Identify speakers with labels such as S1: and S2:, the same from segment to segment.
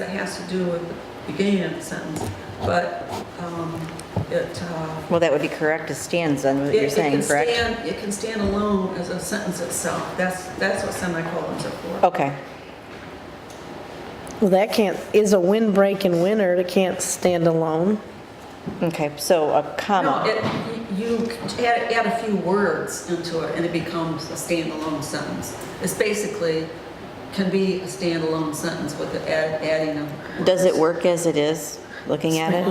S1: It has to do with the beginning of the sentence, but um, it, uh,
S2: Well, that would be correct as stands on what
S1: it
S2: you're
S1: it can
S2: saying, correct?
S1: stand, it can stand alone as a sentence itself. That's, that's what semicolons are for.
S2: Okay,
S3: Well, that can't, is a windbreak in winter, it can't stand alone.
S2: okay, so a
S1: No,
S2: comma.
S1: it, you you add, add a few words into it and it becomes a standalone sentence. It's basically, can be a standalone sentence with the add- adding of.
S2: Does it
S1: words.
S2: work as it is, looking at it?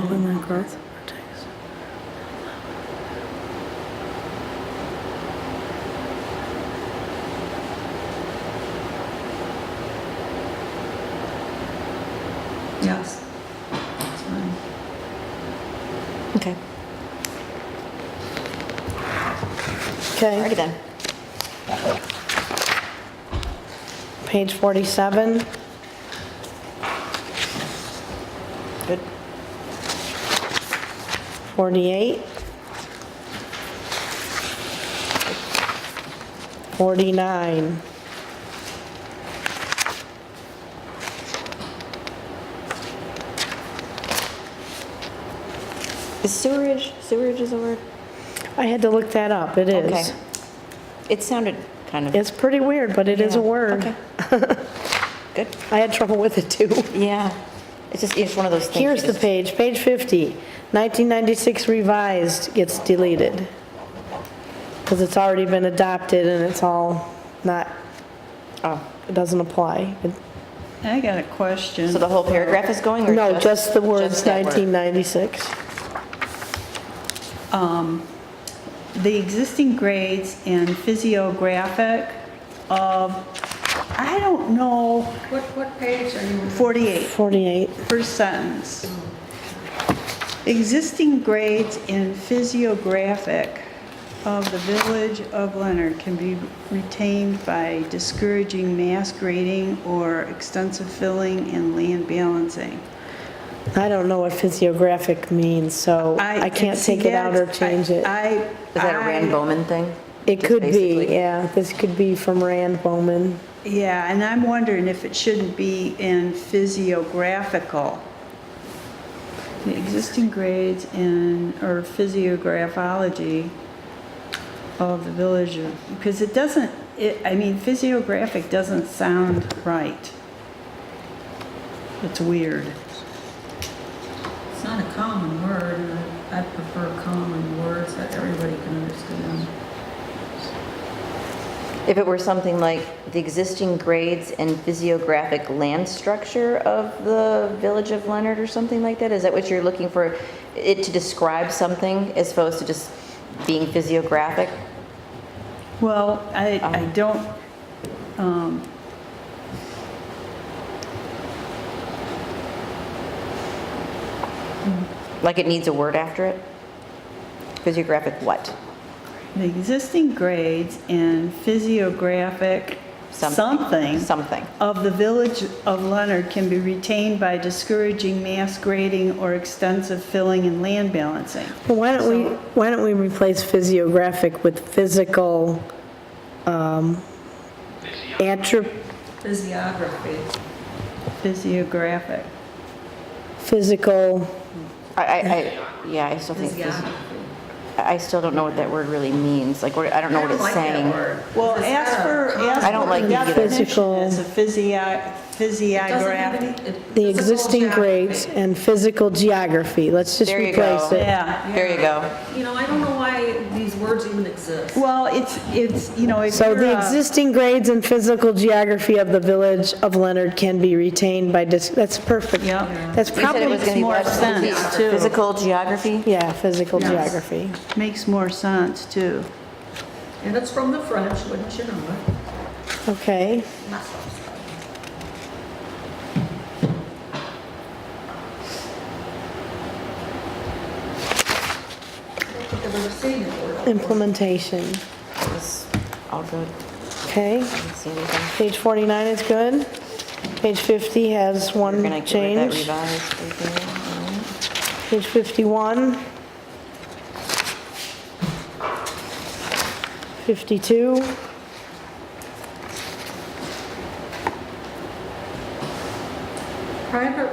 S1: Yes. That's fine.
S2: Okay,
S3: Okay,
S2: alrighty then.
S3: page 47.
S2: Good.
S3: 48. 49.
S2: Is sewerage, sewerage is a word?
S3: I had to look that up, it
S2: Okay.
S3: is.
S2: It sounded kind of.
S3: It's pretty weird, but it is a
S2: Yeah,
S3: word.
S2: okay. Good,
S3: I had trouble with it too.
S2: yeah. It's just, it's one of those things. you
S3: Here's the
S2: just-
S3: page, page 50, 1996 revised gets deleted. Because it's already been adopted and it's all not,
S2: Oh,
S3: it doesn't apply. It-
S4: I got a question.
S2: so the whole paragraph is going or?
S3: No, just the words
S2: just that word?
S3: 1996.
S4: The existing grades and physiographic of, I don't know,
S1: What, what page are you?
S4: 48,
S3: 48,
S4: first sentence. Existing grades and physiographic of the village of Leonard can be retained by discouraging mass grading or extensive filling and land balancing.
S3: I don't know what physiographic means, so I can't
S4: see
S3: take it out or
S4: that's-
S3: change it.
S4: I.
S2: Is that a Rand Bowman thing?
S3: It
S2: Just
S3: could be,
S2: basically-
S3: yeah, this could be from Rand Bowman.
S4: Yeah, and I'm wondering if it shouldn't be in physiographical. The existing grades in, or physiographology of the village of, because it doesn't, it, I mean, physiographic doesn't sound right. It's weird.
S1: It's not a common word, and I I prefer common words that everybody can understand.
S2: If it were something like the existing grades and physiographic land structure of the village of Leonard or something like that, is that what you're looking for? It to describe something as opposed to just being physiographic?
S4: Well, I, I don't, um,
S2: Like it needs a word after it? Physiographic what?
S4: the existing grades in physiographic something.
S2: Something.
S4: of the village of Leonard can be retained by discouraging mass grading or extensive filling and land balancing.
S3: Well, why don't we, why don't we replace physiographic with physical um, attri,
S1: Physiography.
S4: Physiographic.
S3: physical,
S2: I, I, I, yeah, I still think, physio-
S1: Physiography.
S2: I still don't know what that word really means. Like, what- I don't know what it's saying.
S4: Well, ask for, ask
S2: uh, I don't
S4: for
S2: like
S4: the
S2: either.
S4: definition
S3: Physical.
S4: as a physio, physiographic.
S3: the existing grades and physical geography. Let's just
S2: There you go.
S3: replace it.
S4: Yeah.
S2: There you go.
S1: You know, I don't know why these words even exist.
S4: Well, it's, it's, you know, if
S3: So
S4: you're
S3: the
S4: a,
S3: existing grades and physical geography of the village of Leonard can be retained by, dis- that's perfect.
S4: yeah,
S3: That's
S2: You said it was
S3: probably,
S2: gonna be
S4: more
S2: what?
S4: sense, too.
S2: Physical geography?
S3: yeah, physical geography.
S4: makes more sense too.
S1: And it's from the French, wouldn't you know it?
S3: Okay,
S1: I don't think I've ever seen it or-
S3: implementation,
S2: It was all good. I
S3: okay.
S2: didn't see anything.
S3: Page 49 is good. Page 50 has
S2: We're
S3: one
S2: gonna get rid of that
S3: change.
S2: revised right there. Alright.
S3: Page 51. 52.
S1: private